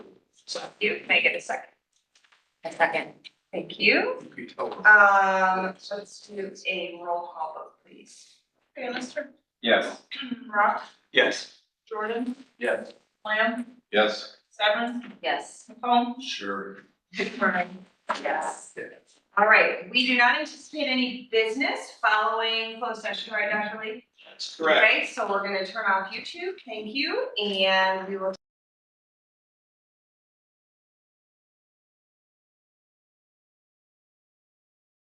So you can I get a second. A second. Thank you. You tell them. Um, so let's do a roll call vote, please. Bannister, Yes. Rock, Yes. Jordan, Yes. Lamb, Yes. Severance, Yes. McComb, Sure. McBride. Yes. All right, we do not anticipate any business following closed session, right, Dr. Lee? That's Right, so we're gonna turn off YouTube, thank you, and we will